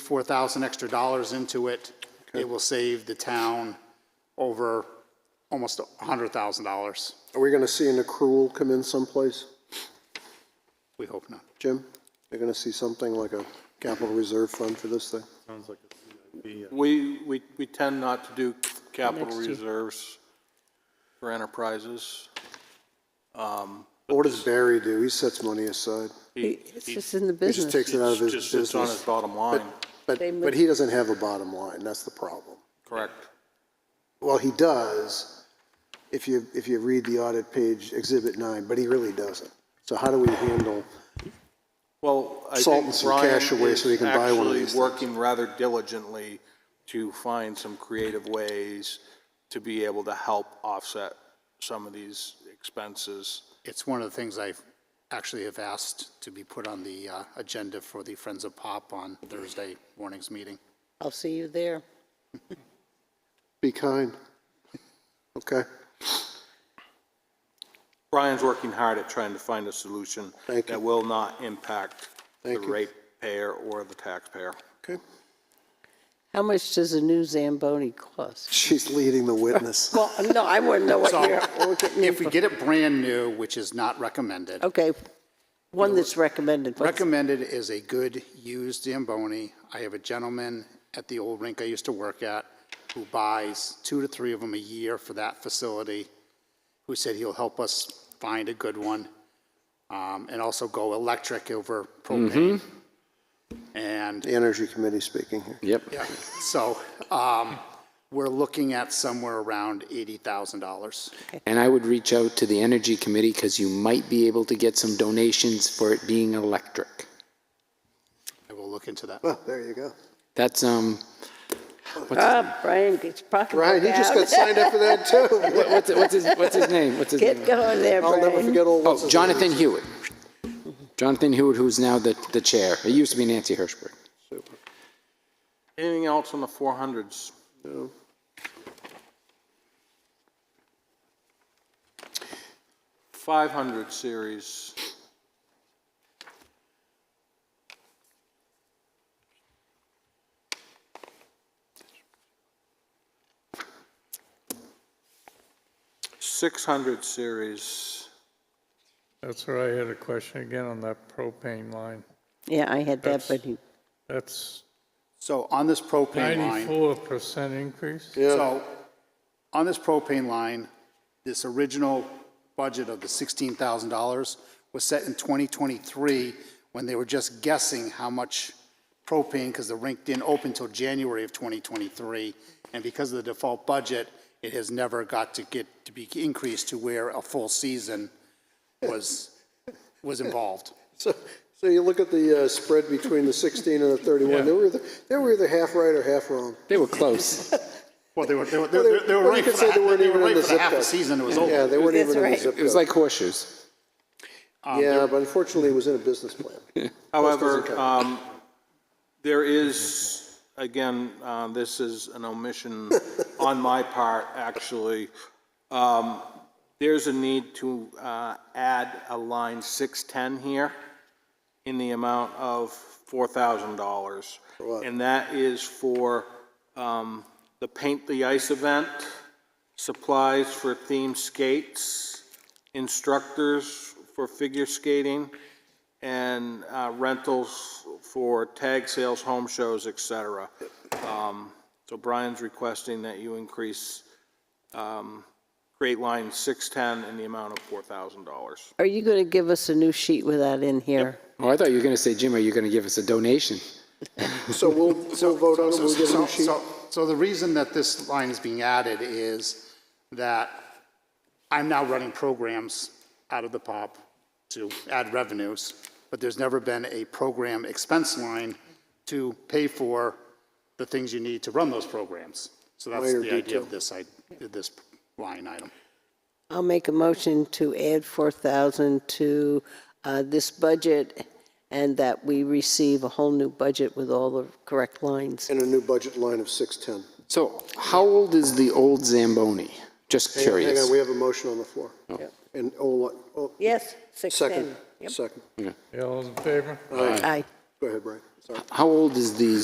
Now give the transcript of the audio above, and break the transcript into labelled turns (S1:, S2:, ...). S1: four thousand extra dollars into it, it will save the town over almost a hundred thousand dollars.
S2: Are we going to see an accrual come in someplace,
S1: We hope not.
S2: Jim? You're going to see something like a capital reserve fund for this thing?
S3: We, we, we tend not to do capital reserves for enterprises.
S2: What does Barry do? He sets money aside.
S3: He
S4: It's just in the
S2: He just
S4: business.
S2: takes it out of
S3: it's
S2: his
S3: just sits on his
S2: business.
S3: bottom line,
S2: But,
S4: They
S2: but he doesn't have a bottom line. That's the problem.
S3: correct?
S2: Well, he does, if you, if you read the audit page, Exhibit 9, but he really doesn't. So how do we handle,
S3: Well, I
S2: Salt
S3: think
S2: and some
S3: Brian
S2: cash away so he
S3: is
S2: can buy one of
S3: actually
S2: these things.
S3: working rather diligently to find some creative ways to be able to help offset some of these expenses.
S1: It's one of the things I actually have asked to be put on the uh, agenda for the Friends of Pop on Thursday morning's meeting.
S4: I'll see you there.
S2: be kind? Okay,
S3: Brian's working hard at trying to find a solution
S2: Thank you.
S3: that will not impact the
S2: Thank you.
S3: ratepayer or the taxpayer.
S2: okay.
S4: How much does a new Zamboni cost?
S2: She's leading the witness.
S4: Well, no, I wouldn't know what
S1: So
S4: you're, what you're-
S1: if we get it brand new, which is not recommended,
S4: okay, one that's recommended. what's-
S1: Recommended is a good used Zamboni. I have a gentleman at the old rink I used to work at who buys two to three of them a year for that facility, who said he'll help us find a good one, um, and also go electric over propane. And
S2: The Energy Committee speaking here.
S5: Yep.
S1: yeah, so, um, we're looking at somewhere around eighty thousand dollars.
S5: And I would reach out to the Energy Committee because you might be able to get some donations for it being electric.
S1: I will look into that.
S2: Well, Oh, there you go.
S5: That's, um,
S4: Ah, Brian gets pocket.
S2: Brian, you just got signed up for that too.
S5: what's, what's his, what's his name? What's his
S4: Get
S5: name?
S4: going there,
S2: I'll never
S4: Brian.
S2: forget old.
S5: Oh, Jonathan Hewitt. Jonathan Hewitt, who's now the, the chair. It used to be Nancy Hirschberg.
S3: Anything else on the 400s? Five hundred series. Six hundred series.
S6: That's where I had a question again on that propane line.
S4: Yeah, I had that,
S6: That's-
S4: but he,
S6: That's
S1: So on this propane line.
S6: ninety-four percent increase?
S1: So, on this propane line, this original budget of the sixteen thousand dollars was set in twenty twenty-three, when they were just guessing how much propane, because the rink didn't open till January of twenty twenty-three, and because of the default budget, it has never got to get, to be increased to where a full season was, was involved.
S2: So, so you look at the uh, spread between the 16 and the 31, they were, either- they were either half right or half wrong.
S5: They were close.
S1: Well, they were, they were, they
S2: Well, they-
S1: were- they were
S2: well, you
S1: right
S2: could
S1: for
S2: say
S1: that,
S2: they weren't
S1: they were
S2: even in
S1: right for
S2: the
S1: the
S2: zip
S1: half a
S2: code.
S1: season it was
S2: Yeah,
S1: over.
S2: they weren't even in the
S4: right.
S2: zip
S5: It was
S2: code.
S5: like horseshoes.
S1: um,
S2: Yeah, but unfortunately, it was in a business plan.
S3: However, um, there is, again, uh, this is an omission on my part, actually. Um, There's a need to uh, add a line 610 here in the amount of $4,000. And that is for um, the Paint the Ice event, supplies for themed skates, instructors for figure skating, and uh, rentals for tag sales, home shows, et cetera. Um, So Brian's requesting that you increase, um, create line 610 in the amount of $4,000.
S4: are you going to give us a new sheet with that in here?
S5: Oh, I thought you were going to say, Jim, are you going to give us a donation?
S2: So we'll, we'll vote on it, we'll get a
S1: So-
S2: new sheet.
S1: so- So the reason that this line is being added is that I'm now running programs out of the POP to add revenues, but there's never been a program expense line to pay for the things you need to run those programs. So that's
S2: Minor
S1: the idea
S2: detail.
S1: of this, I, this line item.
S4: I'll make a motion to add 4,000 to uh, this budget and that we receive a whole new budget with all the correct lines.
S2: And a new budget line of 610.
S5: So how old is the old Zamboni? Just
S2: Hang on,
S5: curious.
S2: Hang on, we have a motion on the floor. And, oh, oh,
S4: Yes,
S2: second,
S4: 610.
S2: second.
S6: Yeah, All in favor?
S4: Aye.
S2: Go ahead, Brian, sorry.
S5: How old is the